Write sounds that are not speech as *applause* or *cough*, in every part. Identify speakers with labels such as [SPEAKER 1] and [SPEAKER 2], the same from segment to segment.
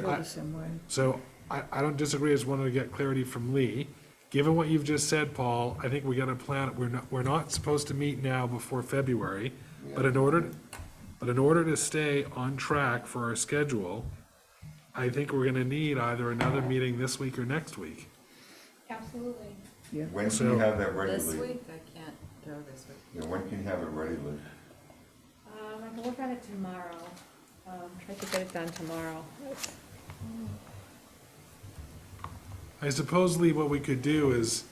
[SPEAKER 1] feel
[SPEAKER 2] I-
[SPEAKER 1] the same way.
[SPEAKER 2] So I, I don't disagree, I just wanted to get clarity from Lee. Given what you've just said, Paul, I think we gotta plan, we're not, we're not supposed to meet now before February, but in order, but in order to stay on track for our schedule, I think we're gonna need either another meeting this week or next week.
[SPEAKER 3] Absolutely.
[SPEAKER 1] Yeah,
[SPEAKER 4] When can
[SPEAKER 2] So-
[SPEAKER 4] you have that ready,
[SPEAKER 5] This
[SPEAKER 4] Lee?
[SPEAKER 5] week, I can't do it this week.
[SPEAKER 4] Yeah, when can you have it ready, Lee?
[SPEAKER 3] Um, I can work on it tomorrow. Um, try to get it done tomorrow.
[SPEAKER 2] I suppose, Lee, what we could do is,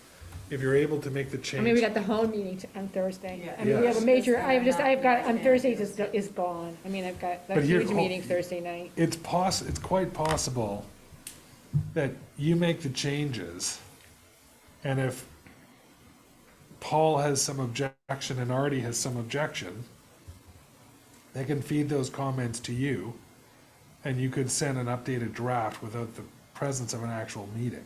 [SPEAKER 2] if you're able to make the
[SPEAKER 3] I mean, we
[SPEAKER 2] change,
[SPEAKER 3] got the whole meeting t- on Thursday.
[SPEAKER 5] Yeah.
[SPEAKER 3] I mean, we have
[SPEAKER 2] Yes.
[SPEAKER 3] a major, I have just, I've got, on
[SPEAKER 5] Yeah.
[SPEAKER 3] Thursday is, is gone. I mean, I've got a
[SPEAKER 2] But here- oh,
[SPEAKER 3] huge meeting Thursday night.
[SPEAKER 2] it's poss, it's quite possible that you make the changes, and if Paul has some objection and Artie has some objection, they can feed those comments to you, and you could send an updated draft without the presence of an actual meeting.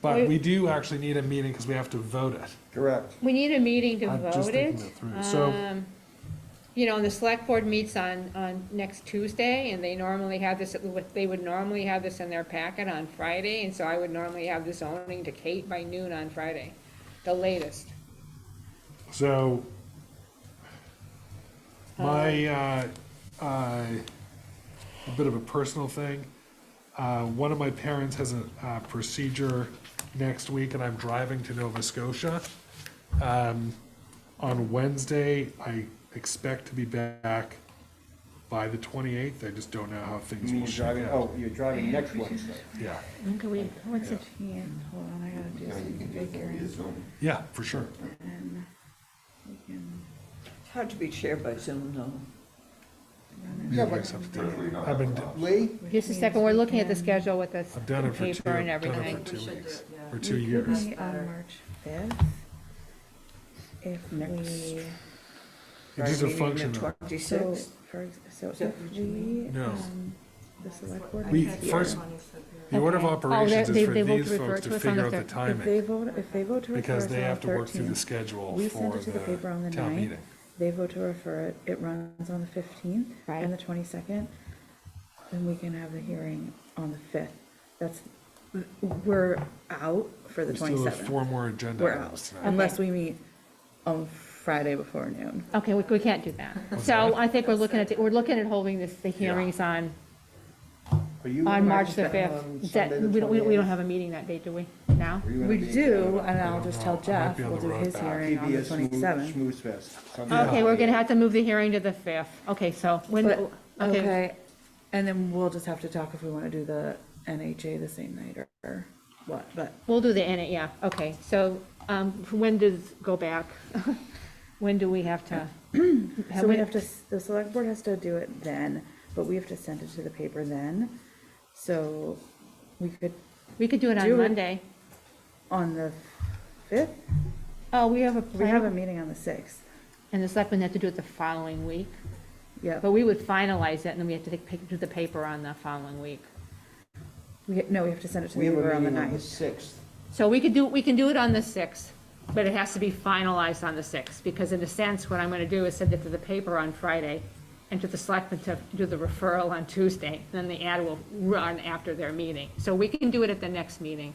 [SPEAKER 2] But
[SPEAKER 3] Wait.
[SPEAKER 2] we do actually need a meeting because we have to vote it.
[SPEAKER 4] Correct.
[SPEAKER 3] We need a meeting to
[SPEAKER 2] I'm just
[SPEAKER 3] vote
[SPEAKER 2] thinking
[SPEAKER 3] it.
[SPEAKER 2] that through. So-
[SPEAKER 3] Um, You know, and the select board meets on, on next Tuesday, and they normally have this, they would normally have this in their packet on Friday, and so I would normally have this zoning to Kate by noon on Friday, the latest.
[SPEAKER 2] So my uh, uh, a bit of a personal thing. Uh, one of my parents has a uh, procedure next week, and I'm driving to Nova Scotia. Um, on Wednesday, I expect to be back by the 28th. I just don't know how things
[SPEAKER 6] You
[SPEAKER 2] will
[SPEAKER 6] mean you're
[SPEAKER 2] shake
[SPEAKER 6] driving,
[SPEAKER 2] out.
[SPEAKER 6] oh, you're driving next Wednesday.
[SPEAKER 2] Yeah,
[SPEAKER 1] when can we, what's it here? Hold on, I gotta do
[SPEAKER 4] Yeah, you
[SPEAKER 1] something
[SPEAKER 4] can do it via
[SPEAKER 1] bigger.
[SPEAKER 4] Zoom.
[SPEAKER 2] yeah, for sure.
[SPEAKER 1] And we can
[SPEAKER 7] It's hard to be chaired by Zoom, though.
[SPEAKER 1] run it.
[SPEAKER 2] Yeah, but I've been-
[SPEAKER 6] Lee,
[SPEAKER 1] Which
[SPEAKER 3] Just a second,
[SPEAKER 1] means
[SPEAKER 3] we're
[SPEAKER 1] we
[SPEAKER 3] looking at the
[SPEAKER 1] can-
[SPEAKER 3] schedule with the
[SPEAKER 2] I've done it for two.
[SPEAKER 3] paper and
[SPEAKER 2] I've done it
[SPEAKER 3] everything.
[SPEAKER 2] for two
[SPEAKER 5] We should do it,
[SPEAKER 2] weeks,
[SPEAKER 5] yeah.
[SPEAKER 2] for
[SPEAKER 1] we
[SPEAKER 2] two
[SPEAKER 1] could
[SPEAKER 2] years.
[SPEAKER 1] meet
[SPEAKER 5] Better.
[SPEAKER 1] On uh, March fifth, if
[SPEAKER 7] Next.
[SPEAKER 1] we,
[SPEAKER 2] It's just a function of
[SPEAKER 1] so,
[SPEAKER 7] Twenty-sixth.
[SPEAKER 1] for, ex- so
[SPEAKER 7] Is that
[SPEAKER 1] if
[SPEAKER 7] what you
[SPEAKER 1] we,
[SPEAKER 2] No.
[SPEAKER 1] um, the select board.
[SPEAKER 2] We-
[SPEAKER 1] meets here,
[SPEAKER 2] first- The
[SPEAKER 1] Okay.
[SPEAKER 2] order of
[SPEAKER 1] Oh,
[SPEAKER 2] operations
[SPEAKER 1] they-
[SPEAKER 2] is for
[SPEAKER 1] they will
[SPEAKER 2] these
[SPEAKER 1] refer
[SPEAKER 2] folks
[SPEAKER 1] to
[SPEAKER 2] to
[SPEAKER 1] us on
[SPEAKER 2] figure
[SPEAKER 1] the
[SPEAKER 2] out the
[SPEAKER 1] thir- If they
[SPEAKER 2] timing,
[SPEAKER 1] vote, if they vote to refer
[SPEAKER 2] because
[SPEAKER 1] us on
[SPEAKER 2] they
[SPEAKER 1] the
[SPEAKER 2] have to work through the
[SPEAKER 1] thirteenth,
[SPEAKER 2] schedule
[SPEAKER 1] we send
[SPEAKER 2] for
[SPEAKER 1] it to the paper on
[SPEAKER 2] the
[SPEAKER 1] the
[SPEAKER 2] town
[SPEAKER 1] ninth,
[SPEAKER 2] meeting.
[SPEAKER 1] they vote to refer it, it runs on the fifteenth
[SPEAKER 3] Right.
[SPEAKER 1] and the twenty-second, then we can have the hearing on the fifth. That's, we're out for the
[SPEAKER 2] We still have
[SPEAKER 1] twenty-seventh,
[SPEAKER 2] four more agenda
[SPEAKER 1] we're out,
[SPEAKER 2] items tonight.
[SPEAKER 1] unless we meet on Friday before noon.
[SPEAKER 3] Okay, we, we can't do that.
[SPEAKER 2] What's
[SPEAKER 3] So
[SPEAKER 2] that?
[SPEAKER 3] I think we're looking at, the- we're looking at holding this, the hearings on,
[SPEAKER 6] are you?
[SPEAKER 3] on
[SPEAKER 6] in
[SPEAKER 3] March the
[SPEAKER 6] town
[SPEAKER 3] fifth.
[SPEAKER 6] on
[SPEAKER 3] Is that,
[SPEAKER 6] Sunday the
[SPEAKER 3] we don't, we don't- we don't
[SPEAKER 6] 28th?
[SPEAKER 3] have a meeting that day, do we, now?
[SPEAKER 6] Are you gonna
[SPEAKER 1] We
[SPEAKER 6] be in
[SPEAKER 1] do,
[SPEAKER 6] town?
[SPEAKER 1] and I'll
[SPEAKER 2] don't
[SPEAKER 1] just
[SPEAKER 2] know.
[SPEAKER 1] tell
[SPEAKER 2] I might
[SPEAKER 1] Jeff,
[SPEAKER 2] be on
[SPEAKER 1] we'll
[SPEAKER 2] the
[SPEAKER 1] do
[SPEAKER 2] road
[SPEAKER 1] his
[SPEAKER 2] back.
[SPEAKER 1] hearing on the
[SPEAKER 6] PBS Smooth-
[SPEAKER 1] twenty-seventh.
[SPEAKER 6] Smooth Fest. Sunday the
[SPEAKER 3] Okay, we're gonna
[SPEAKER 6] 28th.
[SPEAKER 3] have to move the hearing to the fifth. Okay, so when,
[SPEAKER 1] But-
[SPEAKER 3] okay,
[SPEAKER 1] Okay, and then we'll just have to talk if we wanna do the NHA the same night or what, but
[SPEAKER 3] we'll do the, N- yeah, okay. So, um, when does,
[SPEAKER 1] *laughs*
[SPEAKER 3] go back, when do we have to?
[SPEAKER 1] So we have to, the select board has to do it then, but we have to send it to the paper then. So we could,
[SPEAKER 3] We could do it
[SPEAKER 1] do
[SPEAKER 3] on
[SPEAKER 1] it.
[SPEAKER 3] Monday.
[SPEAKER 1] on the fifth,
[SPEAKER 3] Oh, we have a
[SPEAKER 1] we have a
[SPEAKER 3] plan,
[SPEAKER 1] meeting on the sixth.
[SPEAKER 3] and the selectmen have to do it the following week.
[SPEAKER 1] Yeah,
[SPEAKER 3] But we would finalize it, and then we have to take, pic- do the paper on the following week.
[SPEAKER 1] we, no, we have to send it to the
[SPEAKER 6] We have a
[SPEAKER 1] paper on the
[SPEAKER 6] meeting on the
[SPEAKER 1] ninth.
[SPEAKER 6] sixth.
[SPEAKER 3] So we could do, we can do it on the 6th, but it has to be finalized on the 6th, because in a sense, what I'm going to do is send it to the paper on Friday and to the selectmen to do the referral on Tuesday, and then the ad will run after their meeting. So we can do it at the next meeting.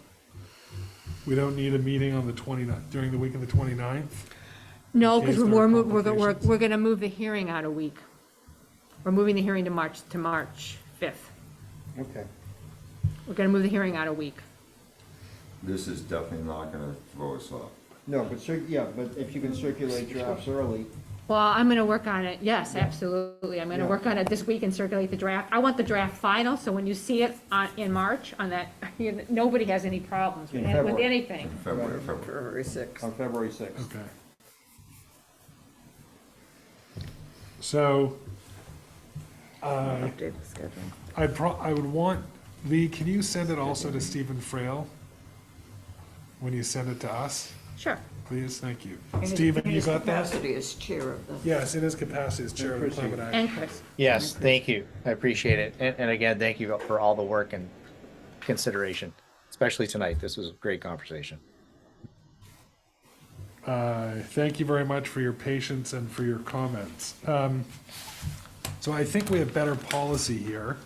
[SPEAKER 2] We don't need a meeting on the 29th, during the week of the 29th?
[SPEAKER 3] No, because
[SPEAKER 2] Is there
[SPEAKER 3] we're, mov- we're, we're,
[SPEAKER 2] complications?
[SPEAKER 3] we're going to move the hearing out a week. We're moving the hearing to March, to March 5th.
[SPEAKER 6] Okay.
[SPEAKER 3] We're going to move the hearing out a week.
[SPEAKER 4] This is definitely not gonna throw us off.
[SPEAKER 6] No, but, cir- yeah, but if you can circulate drafts early,
[SPEAKER 3] Well, I'm going to work on it, yes, absolutely, I'm going to
[SPEAKER 6] Yeah.
[SPEAKER 3] work on it this week and circulate the draft. I want the draft final, so when you see it on, in March, on that, *laughs* you know, nobody has any problems with
[SPEAKER 6] In
[SPEAKER 3] it- with
[SPEAKER 6] February.
[SPEAKER 3] anything.
[SPEAKER 4] February, February.
[SPEAKER 7] February sixth.
[SPEAKER 6] on February sixth.
[SPEAKER 2] Okay. So, uh,
[SPEAKER 1] Update the schedule.
[SPEAKER 2] I pro, I would want, Lee, can you send it also to Stephen Frail? When you send it to us,
[SPEAKER 3] Sure,
[SPEAKER 2] please, thank you. Stephen, you got that?
[SPEAKER 7] Capacity as chair of the.
[SPEAKER 2] Yes, in his capacity as chair of the climate action.
[SPEAKER 3] and Chris,
[SPEAKER 8] Yes, thank you. I appreciate it. And, and again, thank you for all the work and consideration, especially tonight. This was a great conversation.
[SPEAKER 2] Uh, Thank you very much for your patience and for your comments. Um, So I think we have better policy here.